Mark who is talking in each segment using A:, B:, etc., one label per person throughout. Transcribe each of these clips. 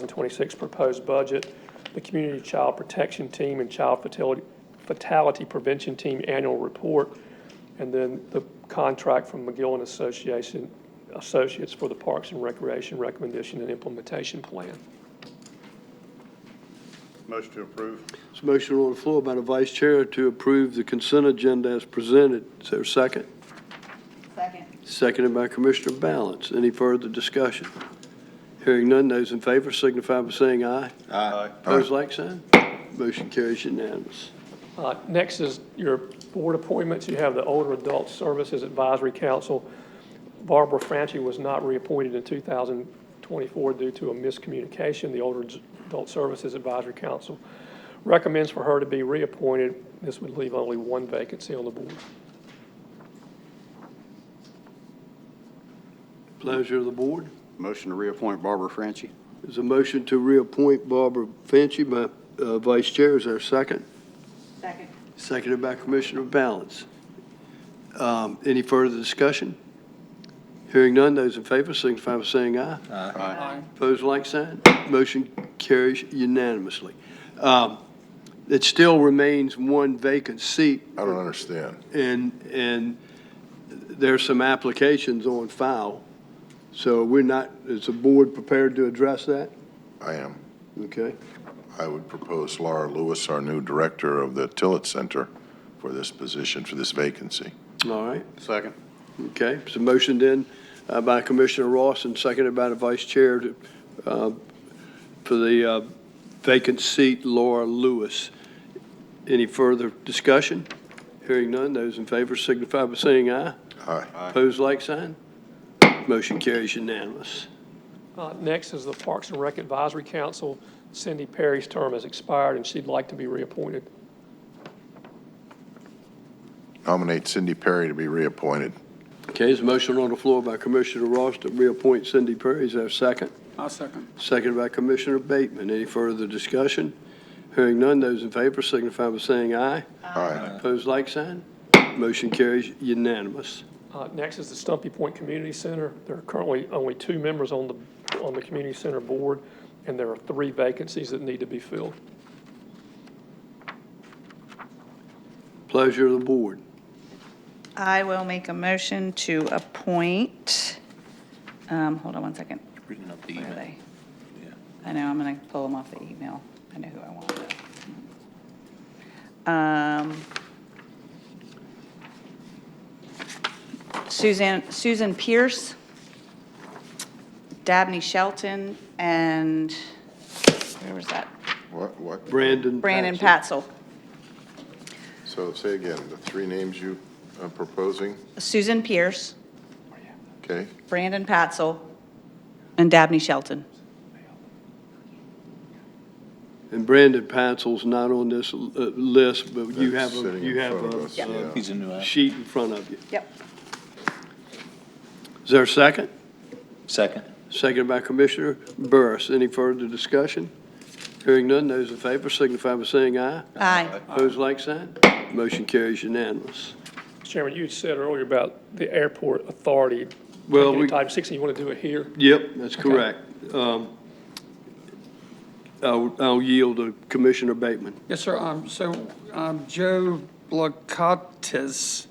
A: 2026 proposed budget, the Community Child Protection Team and Child Fatality- Fatality Prevention Team Annual Report, and then the contract from McGill and Association, Associates for the Parks and Recreation Recommendation and Implementation Plan.
B: Motion to approve.
C: It's a motion on the floor by the vice chair to approve the consent agenda as presented. Is there a second?
D: Second.
C: Seconded by Commissioner Balance. Any further discussion? Hearing none, those in favor signify by saying aye.
B: Aye.
C: Opposed, like sign. Motion carries unanimous.
A: Uh, Next is your board appointments. You have the Older Adult Services Advisory Council. Barbara Franchi was not reappointed in 2024 due to a miscommunication. The Older Adult Services Advisory Council recommends for her to be reappointed. This would leave only one vacancy on the board.
C: Pleasure of the board.
B: Motion to reappoint Barbara Franchi.
C: There's a motion to reappoint Barbara Fanci by uh, vice chair. Is there a second?
D: Second.
C: Seconded by Commissioner Balance. Um, Any further discussion? Hearing none, those in favor signify by saying aye.
B: Aye.
C: Opposed, like sign. Motion carries unanimously. Um, It still remains one vacant seat,
E: I don't understand.
C: and, and there's some applications on file. So we're not, is the board prepared to address that?
E: I am.
C: Okay.
E: I would propose Laura Lewis, our new director of the Tillett Center, for this position, for this vacancy.
C: All right.
B: Second.
C: Okay, so motion then uh, by Commissioner Ross and seconded by the Vice Chair to, uh, for the uh, vacant seat, Laura Lewis. Any further discussion? Hearing none, those in favor signify by saying aye.
E: Aye.
C: Opposed, like sign. Motion carries unanimous.
A: Uh, Next is the Parks and Rec Advisory Council. Cindy Perry's term has expired, and she'd like to be reappointed.
E: Nominate Cindy Perry to be reappointed.
C: Okay, there's a motion on the floor by Commissioner Ross to reappoint Cindy Perry. Is there a second?
F: I'll second.
C: Seconded by Commissioner Bateman. Any further discussion? Hearing none, those in favor signify by saying aye.
E: Aye.
C: Opposed, like sign. Motion carries unanimous.
A: Uh, Next is the Stumpy Point Community Center. There are currently only two members on the, on the community center board, and there are three vacancies that need to be filled.
C: Pleasure of the board.
D: I will make a motion to appoint, um, hold on one second.
F: Reading up the
D: Where are they?
F: Yeah.
D: I know, I'm going to pull them off the email. I know who I want. but- Um, Suzanne, um, Susan Pierce, Dabney Shelton, and where was that?
E: What, what?
C: Brandon.
D: Brandon
C: Patson.
D: Patzel.
E: So say again, the three names you are proposing,
D: Susan Pierce,
E: okay?
D: Brandon Patzel, and Dabney Shelton.
C: And Brandon Patzel's not on this uh, list, but you
E: That's
C: have, a
E: sitting in
C: you have
E: front of us,
D: Yep.
E: yeah.
C: a
F: He's a new
C: uh,
F: app.
C: sheet in front of you.
D: Yep.
C: Is there a second?
F: Second.
C: Second by Commissioner Burris. Any further discussion? Hearing none, those in favor signify by saying aye.
D: Aye.
C: Opposed, like sign. Motion carries unanimous.
A: Mr. Chairman, you said earlier about the airport authority.
C: Well,
A: taking
C: we-
A: Type 60, you want to do it here?
C: Yep, that's correct. Um, I'll I'll yield to Commissioner Bateman.
G: Yes, sir. Um, So um, Joe Blakatis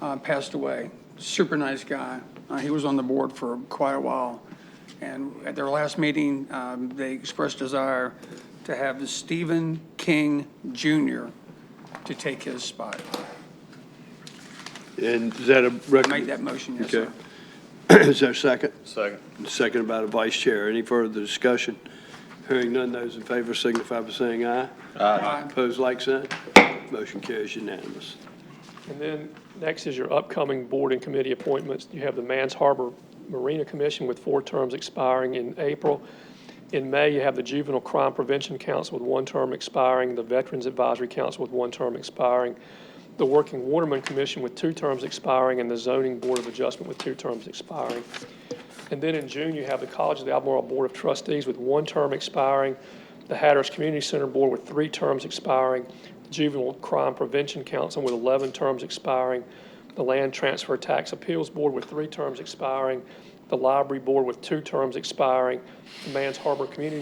G: uh, passed away. Super nice guy. Uh, He was on the board for quite a while. And at their last meeting, um, they expressed desire to have Stephen King Jr. to take his spot.
C: And is that a
G: Make
C: recommendation?
G: that motion, yes,
C: Okay.
G: sir.
C: Is there a second?
B: Second.
C: Second by the vice chair. Any further discussion? Hearing none, those in favor signify by saying aye.
G: Aye.
C: Opposed, like sign. Motion carries unanimous.
A: And then next is your upcoming board and committee appointments. You have the Mans Harbor Marina Commission with four terms expiring in April. In May, you have the Juvenile Crime Prevention Council with one term expiring, the Veterans Advisory Council with one term expiring, the Working Waterman Commission with two terms expiring, and the Zoning Board of Adjustment with two terms expiring. And then in June, you have the College of the Albemarle Board of Trustees with one term expiring, the Hatteras Community Center Board with three terms expiring, Juvenile Crime Prevention Council with 11 terms expiring, the Land Transfer Tax Appeals Board with three terms expiring, the Library Board with two terms expiring, the Mans Harbor Community